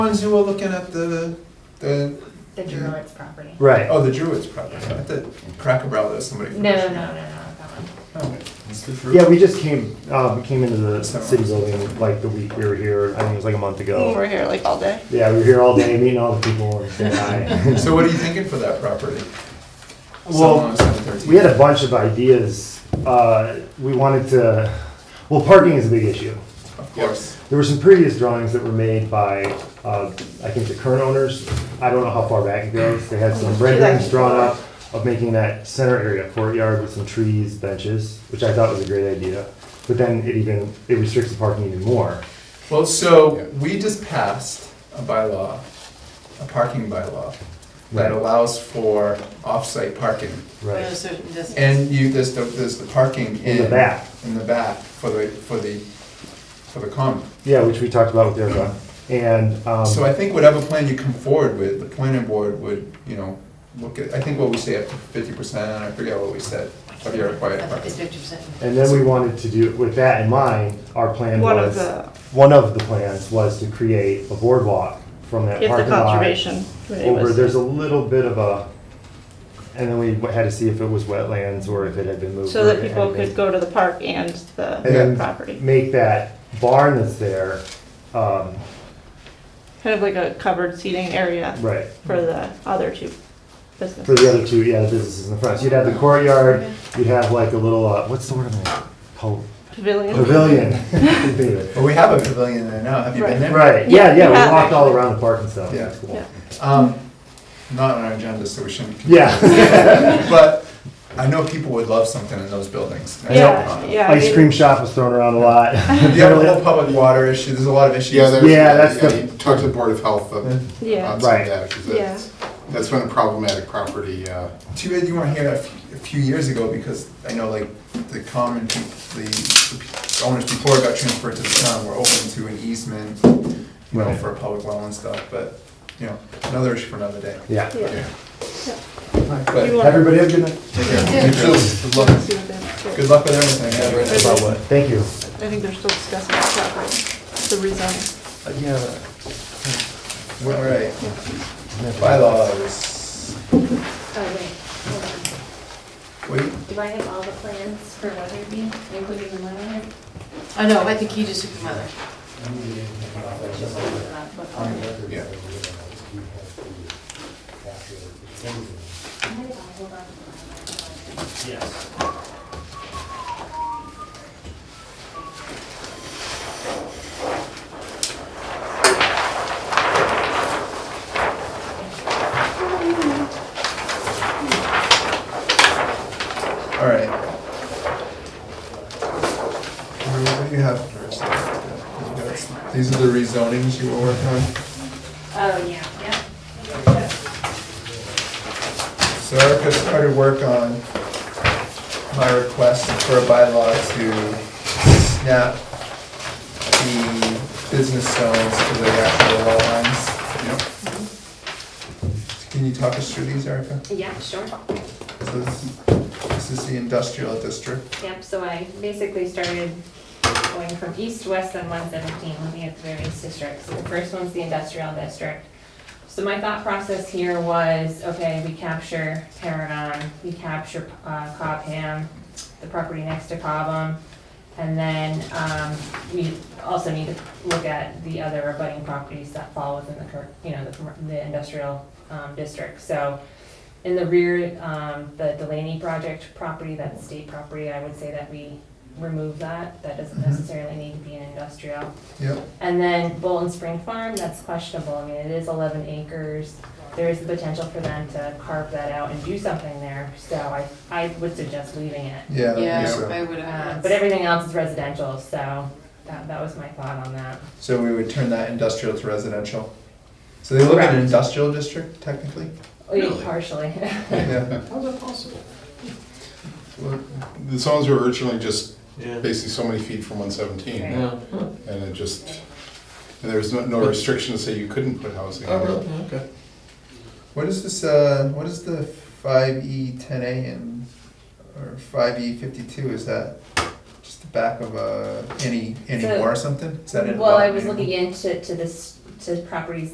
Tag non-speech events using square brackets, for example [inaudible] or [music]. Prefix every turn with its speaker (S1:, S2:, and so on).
S1: times you were looking at the, the,
S2: the Druids property.
S3: Mm-hmm. Right.
S1: oh, the Druids probably, not the Cracker Barrel, there's somebody. from-
S2: No, no, no, no, not that one.
S1: Oh,
S3: Yeah, we just came, uh, we came into the city building like the week we were here, I think it was like a month
S4: We
S3: ago.
S4: were here like all day.
S3: Yeah, we were here all day, meeting all the people and saying hi.
S1: [laughs] So what are you thinking for that property?
S3: Well, we had a bunch of ideas. Uh, we wanted to, well, parking is a big issue.
S1: Of course.
S3: There were some previous drawings that were made by, uh, I think the current owners. I don't know how far back it goes. They had some renderings drawn up of making that center area courtyard with some trees, benches, which I thought was a great idea. But then it even, it restricts the parking even more.
S1: Well, so we just passed a bylaw, a parking bylaw, that
S3: Right.
S1: allows for off-site parking.
S3: Right.
S1: And you, there's the, there's the parking in.
S3: In the back.
S1: In the back for the, for the, for the common.
S3: Yeah, which we talked about with Erica. And, um,
S1: So I think whatever plan you come forward with, the planning board would, you know, look at, I think what we say up to fifty percent, I forget what we said, of your required parking.
S3: and then we wanted to do, with that in mind, our plan
S4: One of
S3: was,
S4: the,
S3: one of the plans was to create a boardwalk from that
S4: if the
S3: parking lot.
S4: conservation committee
S3: Over,
S4: was.
S3: there's a little bit of a, and then we had to see if it was wetlands or if it had been moved.
S4: So
S3: or
S4: that
S3: if it
S4: people
S3: had been-
S4: could go to the park and
S3: And
S4: the
S3: then-
S4: property.
S3: Make that barn that's there, um,
S4: Kind of like a covered seating area
S3: right,
S4: for the other two businesses.
S3: for the other two, yeah, the businesses in the front. So you'd have the courtyard, you'd have like a little, uh, what's the word I'm gonna, po-
S4: Pavilion.
S3: pavilion. Couldn't think of it.
S1: Well, we have a pavilion there now, have you been
S4: Right.
S1: there?
S3: Right, yeah,
S4: Yeah,
S3: yeah,
S4: you
S3: we
S4: have
S3: walked all
S4: actually.
S3: around the park and stuff.
S1: Yeah.
S3: It's cool.
S4: Yeah.
S1: Um, not on our agenda, so we shouldn't.
S3: [laughs] Yeah,
S1: [laughs] But I know people would love something in those buildings. I know,
S4: Yeah,
S1: uh,
S4: yeah. I
S3: [laughs] ice
S4: mean,
S3: cream shop was thrown around a [laughs] lot.
S1: You have a whole public water issue, there's a lot of issues.
S5: Yeah, there's,
S3: Yeah, that's
S5: yeah,
S3: the-
S5: you talk to the Board of Health uh,
S4: Yeah,
S5: on some
S3: Right.
S5: of that, because that's, that's been a problematic property, uh,
S1: Too bad you weren't here a few, a few years ago, because I know like the common, peop- the the pe- owners before it got transferred to the town were open to an easement, you know,
S3: Right.
S1: for public well and stuff, but, you know, another issue for another day.
S3: Yeah.
S4: yeah.
S1: But
S4: You want-
S3: Everybody have a good night.
S1: take care. Good luck,
S4: See what they-
S1: good luck with everything.
S4: About what?
S3: Thank you.
S4: I think they're still discussing the property, the rezoning.
S1: All right. Bylaws.
S2: Oh, wait, hold on.
S1: Wait,
S2: Do I have all the plans for Weatherby, including the Leatherhead?
S6: I know, Oh, I think he just took the mother.
S1: yeah.
S2: I had it all, hold on.
S1: All right. Drew, What do you have first? These are the rezonings you were working on,
S2: Oh, yeah, yeah.
S1: so Erica started work on my request for a bylaw to snap the business zones to the actual law lines. Can you talk us through these, Erica?
S2: Yeah, sure.
S1: So this, this is the industrial district,
S2: Yep, so I basically started going from east, west, and one seventeen, looking at the various districts. The first one's the industrial district. So my thought process here was, okay, we capture Paragon, we capture uh, Cobham, the property next to Cobham. And then, um, we also need to look at the other abutting properties that fall within the current, you know, the, commer- the industrial, um, district. So in the rear, um, the Delaney project property, that's state property, I would say that we remove that. That doesn't
S1: Mhm.
S2: necessarily need to be an industrial.
S1: yep.
S2: And then Bolton Spring Farm, that's questionable, I mean, it is eleven acres. There is the potential for them to carve that out and do something there, so I, I would suggest leaving it.
S1: Yeah, I think
S6: Yeah,
S1: so.
S6: I would
S2: Uh,
S6: have.
S2: But everything else is residential, so that, that was my thought on that.
S1: So we would turn that industrial to residential. So they live in an
S2: Correct.
S1: industrial district
S2: [laughs]
S1: technically?
S2: Only Oh, Partially.
S1: Yeah.
S5: How's that possible? The zones were originally just basically so many feet from one seventeen,
S2: Right.
S5: and it just, and there was no, no restriction to say you couldn't put housing. in it.
S1: Okay. What is this, uh, what is the five E ten A and, or five E fifty-two, is that just the back of a, any, any
S2: So-
S1: more or something? Is that in?
S2: Well, I was looking into, to this, to properties